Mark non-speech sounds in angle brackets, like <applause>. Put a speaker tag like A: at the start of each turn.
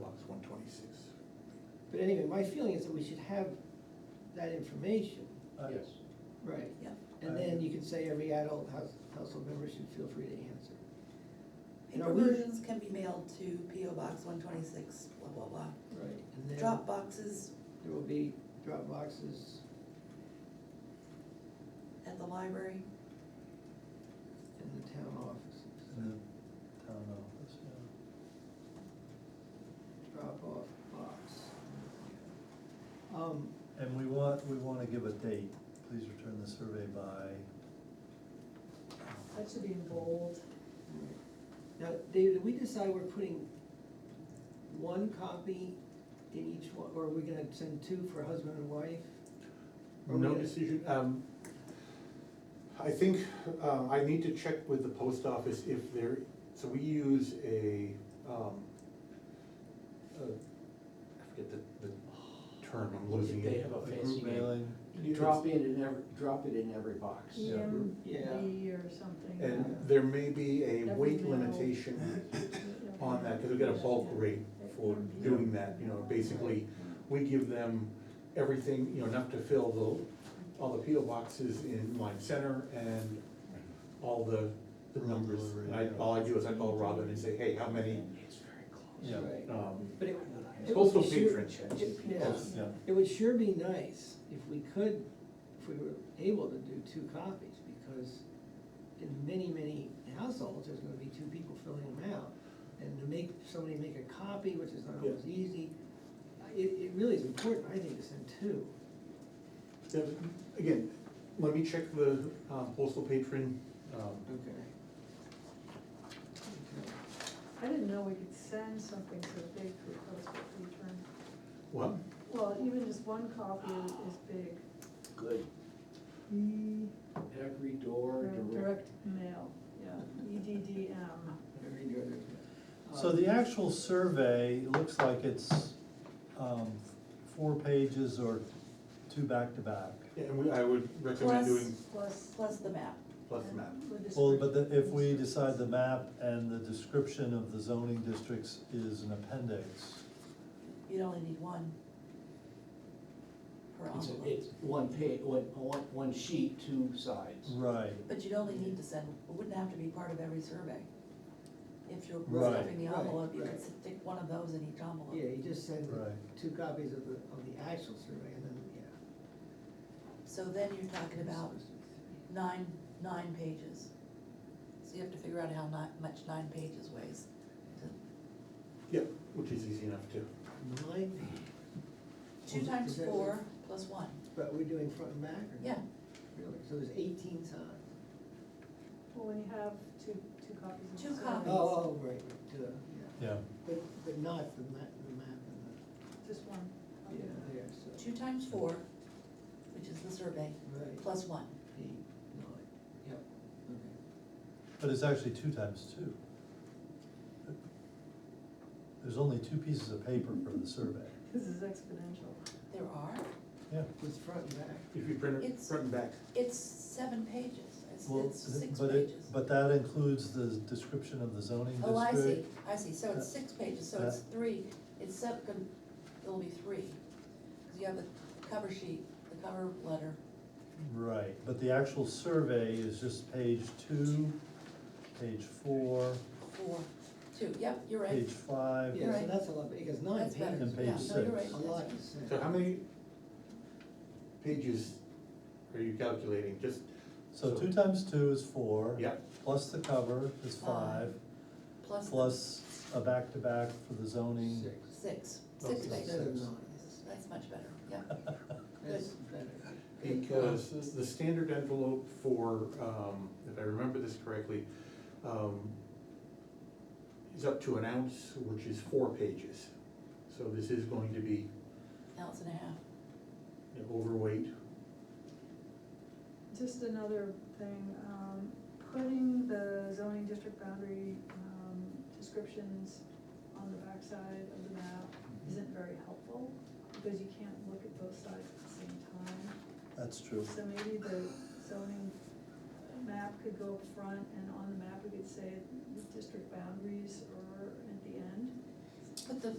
A: lot's one twenty-six.
B: But anyway, my feeling is that we should have that information.
C: Uh,
D: Yes.
B: Right.
E: Yeah.
B: And then you can say every adult house- household member should feel free to answer. No,
E: Paper
B: we-
E: versions can be mailed to PO Box one twenty-six, blah, blah, blah.
B: Right. And then
E: Drop boxes
B: there will be drop boxes
E: at the library.
B: in the town offices,
C: in the town office, yeah.
B: drop off box. Um,
C: And we want, we wanna give a date, please return the survey by.
F: That should be in bold.
B: Now, David, did we decide we're putting one copy in each one, or are we gonna send two for husband and wife? Or
A: No
B: we-
A: decision, um, I think, uh, I need to check with the post office if there, so we use a, um, uh, I forget the, the term, I'm losing
D: They
A: it.
D: have a
C: a
D: fancy
C: Group
D: name.
C: mailing,
D: You drop in in every, drop it in every box.
C: Yeah.
F: EMB or something. uh,
A: And there may be a
F: Every
A: weight
F: mail.
A: limitation on that, because we get a bulk rate for doing that, you know, basically, we give them everything, you know, enough to fill the, all the PO boxes in Lime Center and all the, the numbers. And I, all I do is I call Robin and say, hey, how many,
D: It's very close.
C: yeah,
B: Right.
A: um,
B: But it, It
A: postal
B: would be sure-
A: patron.
B: it- yeah.
C: yeah,
B: It would sure be nice if we could, if we were able to do two copies, because in many, many households, there's gonna be two people filling them out. And to make, somebody make a copy, which is not always easy, it, it really is important, I think, to send two.
A: Yeah, Again, let me check the um, postal patron, um,
B: Okay. Okay.
F: I didn't know we could send something so big to a postal return.
A: what?
F: Well, even just one copy is is big,
D: Good. Every door
F: Direct-
D: direct.
F: direct mail, yeah, E EDDM.
B: Every door there's a-
C: So the actual survey, it looks like it's, um, four pages or two back-to-back.
A: Yeah, And we, I would recommend
E: Plus-
A: doing
F: Plus.
E: Plus the map.
A: plus map.
F: with this-
C: Well, but the- if we decide the map and the description of the zoning districts is an appendix,
E: You'd only need one. Per
D: It's,
E: envelope.
D: it's one pa, one, one, one sheet, two sides.
C: right,
E: But you'd only need to send, it wouldn't have to be part of every survey. If you're
C: Right.
E: stuffing the
B: Right,
E: envelope, you
B: right.
E: could stick one of those in each envelope.
B: Um, Yeah, you just send
C: right.
B: two copies of the, of the actual survey, and then, yeah.
E: So then you're talking about nine, nine pages. So you have to figure out how ni- much nine pages weighs.
A: Yeah, which is easy enough to.
B: Nine,
E: Two
B: Well,
E: times
B: is that-
E: four plus one,
B: but we're doing front and back, or?
E: yeah.
B: Really, so there's eighteen times?
F: Well, we have two, two copies. of
E: Two
F: this.
E: copies.
B: Oh, oh, right, right, duh, yeah,
C: Yeah,
B: but, but not the map, the map and
A: oh.
F: Just one.
B: the, yeah, there, so.
E: Two times four, which is the survey,
B: Right,
E: plus one.
B: eight, nine, yep, okay.
C: but it's actually two times two. There's only two pieces of paper for the survey,
F: This is exponential.
E: There are,
C: yeah.
B: With front and back,
A: If you print it
E: It's-
A: front and back,
E: it's seven pages, it's,
C: Well,
E: it's six
C: but it-
E: pages.
C: But that includes the description of the zoning district.
E: Oh, I see, I see, so it's
C: uh,
E: six pages, so it's three, it's seven, it'll be three. Cause you have the cover sheet, the cover letter,
C: Right, but the actual survey is just page two, page four,
E: four, two, yep, you're right.
C: page five.
B: yeah, so
E: Right.
B: that's a lot, because nine
E: That's better,
B: pages,
C: And page
E: yeah, no, you're right.
C: six.
B: a lot to say.
A: so how many pages are you calculating? Just,
C: So two times two is four.
A: yeah,
C: Plus the cover is five,
E: Plus.
C: plus a back-to-back for the zoning.
B: Six,
E: Six,
A: Oh,
E: six
A: so
B: instead
E: pages,
B: of nine,
E: that's much better, yeah.
C: <laughs>
B: that's better.
A: because the standard envelope for, um, if I remember this correctly, um, is up to an ounce, which is four pages. So this is going to be
E: Ounce and a half,
A: you know, overweight.
F: Just another thing, um, putting the zoning district boundary, um, descriptions on the backside of the map isn't very helpful, because you can't look at both sides at the same time.
C: <laughs> That's true.
F: So maybe the zoning map could go up front, and on the map, we could say district boundaries or at the end.
E: put the